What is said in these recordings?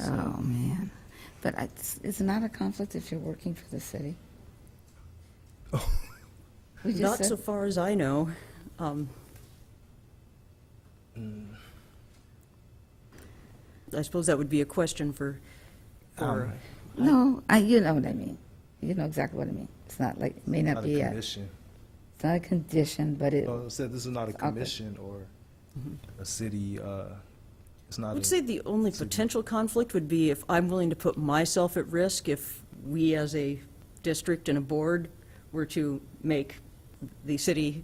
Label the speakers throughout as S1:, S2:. S1: Oh, man. But it's, it's not a conflict if you're working for the city.
S2: Oh.
S1: We just
S3: Not so
S1: said,
S3: far as I know. Um, I suppose that would be a question for,
S2: Um,
S3: for,
S1: no, I, you know what I mean. You know exactly what I mean. It's not like, it may not
S2: Not a
S1: be a,
S2: commission.
S1: it's not a condition, but it,
S2: Oh, it said this is not a
S1: Okay.
S2: commission or a city, uh, it's
S3: I
S2: not
S3: Mm-hmm. would say
S2: a,
S3: the only potential conflict would be if I'm willing to put myself at risk if we as a district and a board were to make the city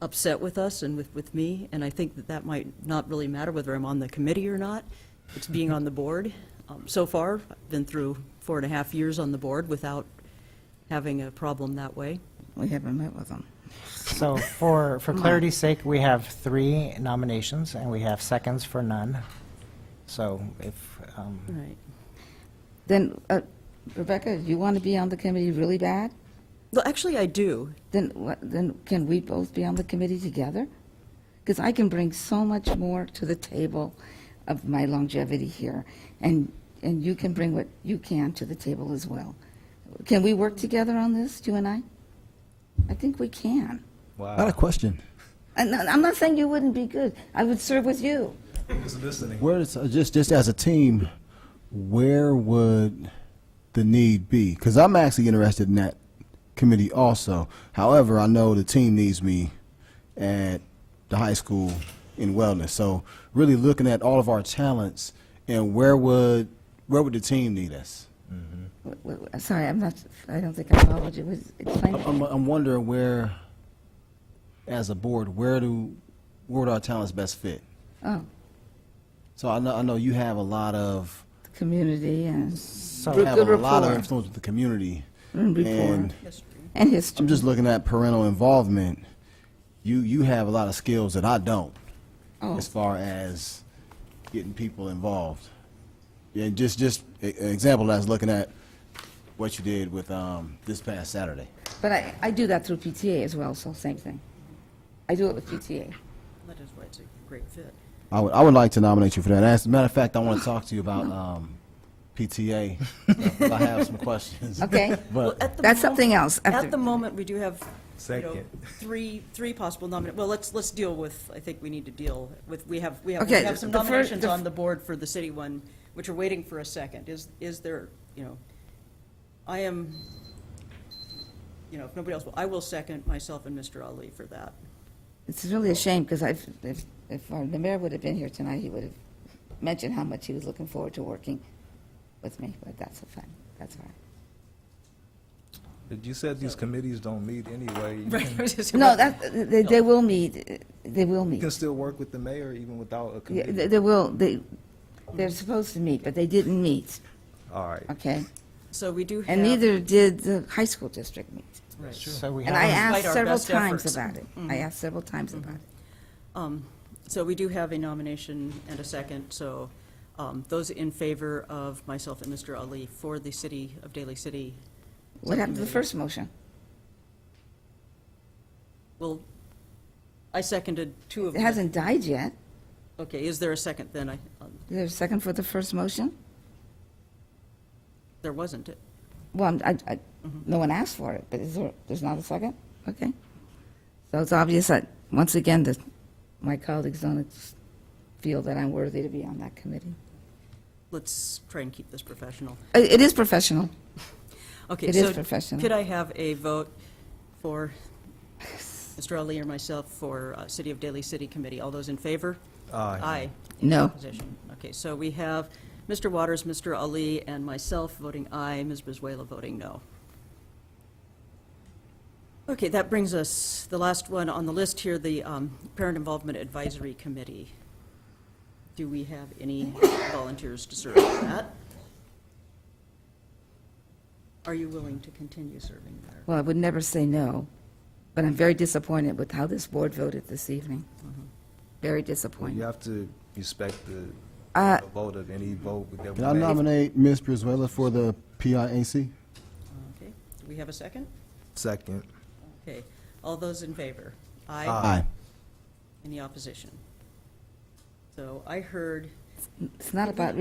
S3: upset with us and with, with me, and I think that that might not really matter whether I'm on the committee or not. It's being on the board. Um, So far, I've been through four and a half years on the board without having a problem that way.
S1: we haven't met with them.
S4: So for, for clarity's sake, we have three nominations, and we have seconds for none. So if, um,
S3: Right.
S1: Then, uh, Rebecca, you want to be on the committee really bad?
S3: Well, actually, I do.
S1: Then, what- then can we both be on the committee together? Because I can bring so much more to the table of my longevity here, and, and you can bring what you can to the table as well. Can we work together on this, you and I? I think we can.
S5: Uh, Not a
S2: wow.
S5: question.
S1: And I- I'm not saying you wouldn't be good. I would serve with you.
S2: Just listening.
S5: Where is, uh, just, just as a team, where would the need be? Because I'm actually interested in that committee also. However, I know the team needs me at the high school in wellness. So really looking at all of our talents and where would, where would the team need us?
S1: W- w- w- Sorry, I'm not, I don't think I followed you. Was- Explain.
S5: I'm, I'm wondering where, as a board, where do, where would our talents best fit?
S1: Oh,
S5: So I know, I know you have a lot of,
S1: the community and
S4: so,
S1: Good Mm,
S5: have a lot of
S1: rapport.
S5: influence with the community.
S1: and rapport
S5: And
S1: and
S5: I'm
S1: history.
S5: just looking at parental involvement. You you have a lot of skills that I don't,
S1: Oh,
S5: as far as getting people involved. And just just a- an example I was looking at what you did with um, this past Saturday.
S1: but I, I do that through PTA as well, so same thing. I do it with PTA.
S3: That is why it's a great fit.
S5: I would I would like to nominate you for that. As a matter of fact, I want to talk to you about um, PTA. but I have some questions.
S1: Okay.
S5: But
S3: uh,
S1: That's something else. after-
S3: At the moment, we do have, you know,
S2: Second.
S3: three, three possible nominations. Well, let's, let's deal with, I think we need to deal with, we have, we have, we
S1: Okay,
S3: have some
S1: the fir-
S3: nominations
S1: the f-
S3: on the board for the city one, which are waiting for a second. Is, is there, you know, I am, you know, if nobody else will, I will second myself and Mr. Ali for that.
S1: It's really a shame, because I've, if, if uh, the mayor would have been here tonight, he would have mentioned how much he was looking forward to working with me, but that's a fun, that's all right.
S2: You said these committees don't meet anyway. You can-
S1: No, that, they, they will meet, uh, they will
S2: You can
S1: meet.
S2: still work with the mayor even without a
S1: Yeah, They
S2: committee.
S1: they will, they, they're supposed to meet, but they didn't meet,
S2: All right.
S1: okay?
S3: So we do have.
S1: And neither did the high school district meet.
S3: Right.
S4: so we
S1: And I
S4: have,
S1: asked
S3: Despite our
S1: several
S3: best
S1: times
S3: efforts. Mm-hmm.
S1: about it. I asked several times about it.
S3: Um, So we do have a nomination and a second, so um, those in favor of myself and Mr. Ali for the city of Daly City
S1: What happened to the first motion?
S3: Well, I seconded two of
S1: It
S3: them.
S1: hasn't died yet.
S3: Okay, is there a second then? I, um,
S1: Is there a second for the first motion?
S3: there wasn't.
S1: Well, I'm- I, I, no one asked for it, but is there, there's not a second? Okay. So it's obvious that, once again, that my colleagues don't feel that I'm worthy to be on that committee.
S3: Let's try and keep this professional.
S1: It, it is professional.
S3: Okay,
S1: It is
S3: so
S1: professional.
S3: Could I have a vote for Mr. Ali or myself for uh, City of Daly City Committee? All those in favor?
S2: Aye.
S3: Aye. Any
S1: No.
S3: opposition? Okay, so we have Mr. Waters, Mr. Ali, and myself voting aye, Ms. Brizuela voting no. Okay, that brings us, the last one on the list here, the um, Parent Involvement Advisory Committee. Do we have any volunteers to serve on that? Are you willing to continue serving there?
S1: Well, I would never say no, but I'm very disappointed with how this board voted this evening. Very
S2: You
S1: disappointed.
S2: have to respect the
S1: Uh,
S2: the vote of any vote that we
S5: Can I
S2: make.
S5: nominate Ms. Brizuela for the PIAC?
S3: Okay, do we have a second?
S2: Second.
S3: Okay, all those in favor?
S5: Aye.
S3: Any opposition? So I heard
S1: It's not about